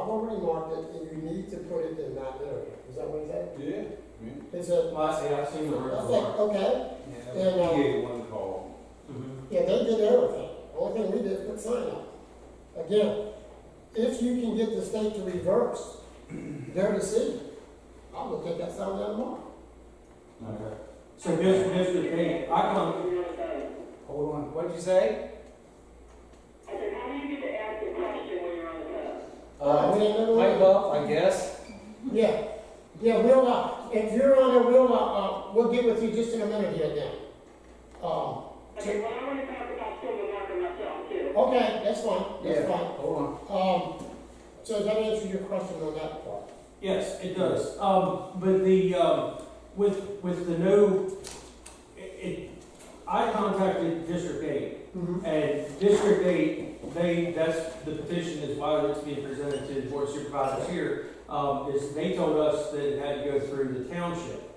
Montgomery Market, and you need to put it in that area, is that what he said? Yeah, yeah. It's a, Well, I see, I've seen the I river was bar. like, okay, Yeah, And, uh, we gave one call. Mhm. yeah, they did everything, only thing we did was put sign up. Again, if you can get the state to reverse their decision, I would take that sign down tomorrow. Okay. So here's, here's the thing, I come, Hold on, what'd you say? I said, how do you get to ask a question when you're on the phone? Uh, we ain't never- up, I guess. Yeah, yeah, we'll, uh, if you're on it, we'll, uh, uh, we'll get with you just in a minute here again. Um, Okay, well, I want to talk about Silver Market myself too. okay, that's fine, that's fine. Hold on. Um, so does that answer your question on that part? yes, it does, um, but the, um, with, with the new, it, it, I contacted District Eight, Mm-hmm. And District Eight, they, that's, the petition is why it's being presented to the board of supervisors here, um, is they told us that it had to go through the township.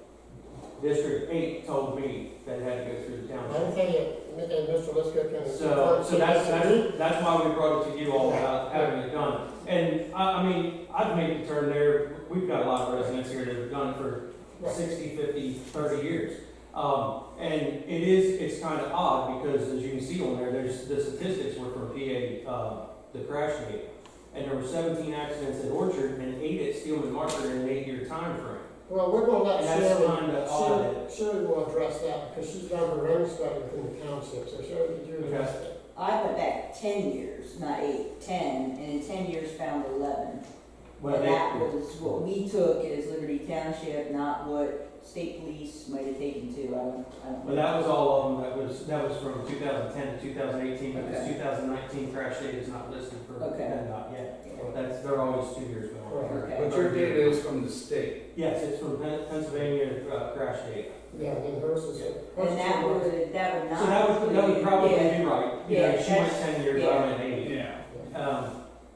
District Eight told me that it had to go through the I township. don't think it, and Mr. Lisco can. So, so that's, that's, that's why we brought it to you all about having it done. And I, I mean, I've made the turn there, we've got a lot of residents here that have done it for 60, 50, 30 years. Um, and it is, it's kind of odd because as you can see on there, there's, the statistics were from PA, uh, the crash data. And there were 17 accidents at Orchard and eight at Steelman Market in an eight-year time frame. Well, we're gonna let And that's Sherry, kind of odd. Sherry, Sherry will address that, because she's done her own study within the township, so Sherry, did you address that? I went back ten years, not eight, ten, and in ten years found eleven. Well, And that they, was what we took as Liberty Township, not what state police might have taken too, I don't, I don't. but that was all of them, that was, that was from 2010 to 2018, but this Okay. 2019 crash data is not listed for Okay. PennDOT yet. That's, they're always two years behind. Right. Okay, But your data is from the state. Yes, it's from Pen- Pennsylvania, uh, crash data. Yeah, and then hers is. hers and is- that would, that would not. So that would, that would include- probably Ah, yeah. be right, you know, Yeah, she went that's- ten years, yeah. I'm at eight. Yeah. Um,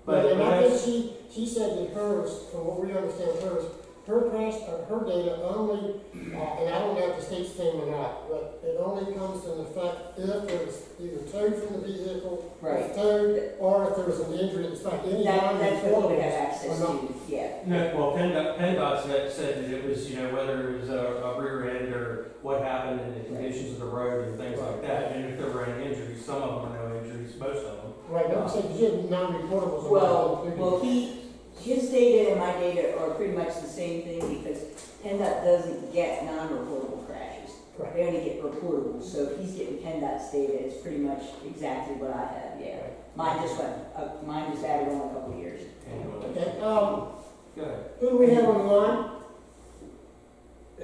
But, but, and I but think she, she said that hers, from what we understand hers, her crash, uh, her data only, uh, and I don't know if the state's thing or not, but it only comes into effect if it was either towed from the vehicle, Right. towed, or if there was an injury, it's like any That, non that's what we would have reportable. access to, yeah. that's, no, well, PennDOT, PennDOT said, said that it was, you know, whether it was a, a rear end or what happened and the conditions of the road and things like that, and if there were any injuries, some of them are no injuries, most of them. Right, I'm saying, you have non-reportables. are not Well, included. well, he, his data and my data are pretty much the same thing because PennDOT doesn't get non-reportable crashes. Right. They only get reportable, so if he's getting PennDOT's data, it's pretty much exactly what I have, yeah. Mine just went, uh, mine just added on a couple of years. Anyway, Okay, um, go ahead. who do we have on the line?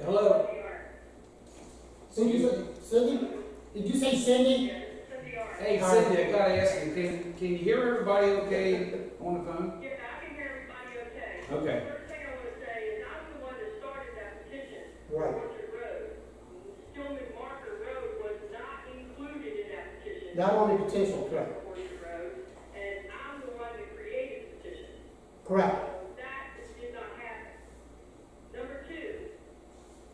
Hello? Cindy, Excuse me? Cindy, did you say Cindy? Hey Cindy, I gotta ask you, can, can you hear everybody okay on the phone? Yeah, I can hear everybody okay. Okay. First thing I want to say is I was the one that started that petition. Right. Orchard Road. Stillman Marker Road was not included in that petition. Not on the petition, correct, Orchard Road, and I'm the one that created the petition. correct. That did not happen. Number two,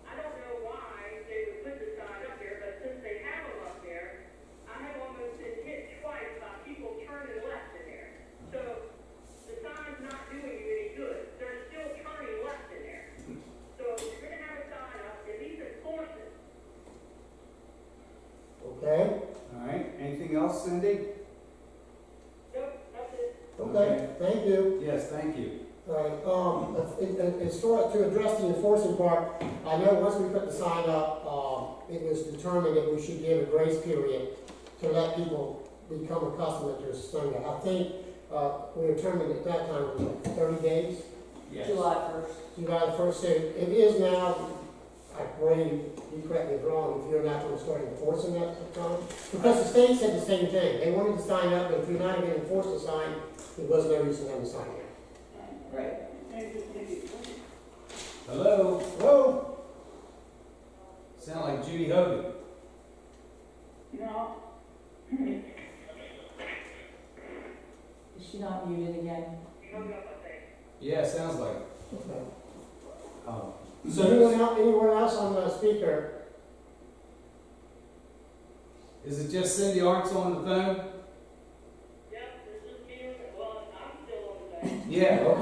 I don't know why they would put the sign up there, but since they have them up there, I have almost been hit twice by people turning left in there. So the sign's not doing you any good. They're still turning left in there. So if you're gonna have a sign up, at least enforce it. Okay, All right, anything else Cindy? Nope, nothing. okay, thank you. Yes, thank you. Right, um, and, and as far as to address the enforcement part, I know once we put the sign up, um, it was determined that we should give a grace period to let people become accustomed to this Sunday. I think, uh, we determined at that time, it was like thirty days, Yes. July first. July first, so it is now, I believe, you correct me if wrong, if you're not gonna start enforcing that at the time. Because the state said the same thing, they wanted to sign up, but if you're not gonna enforce the sign, there was no reason to have the sign up. Right. Hello? Hello? Sound like Judy Hogan. Is she not muted again? Yeah, sounds like it. Okay. Um, So anyone else, anyone else on the speaker? Is it just Cindy Arts on the phone? Yep, this is me, well, I'm still on the. Yeah, okay.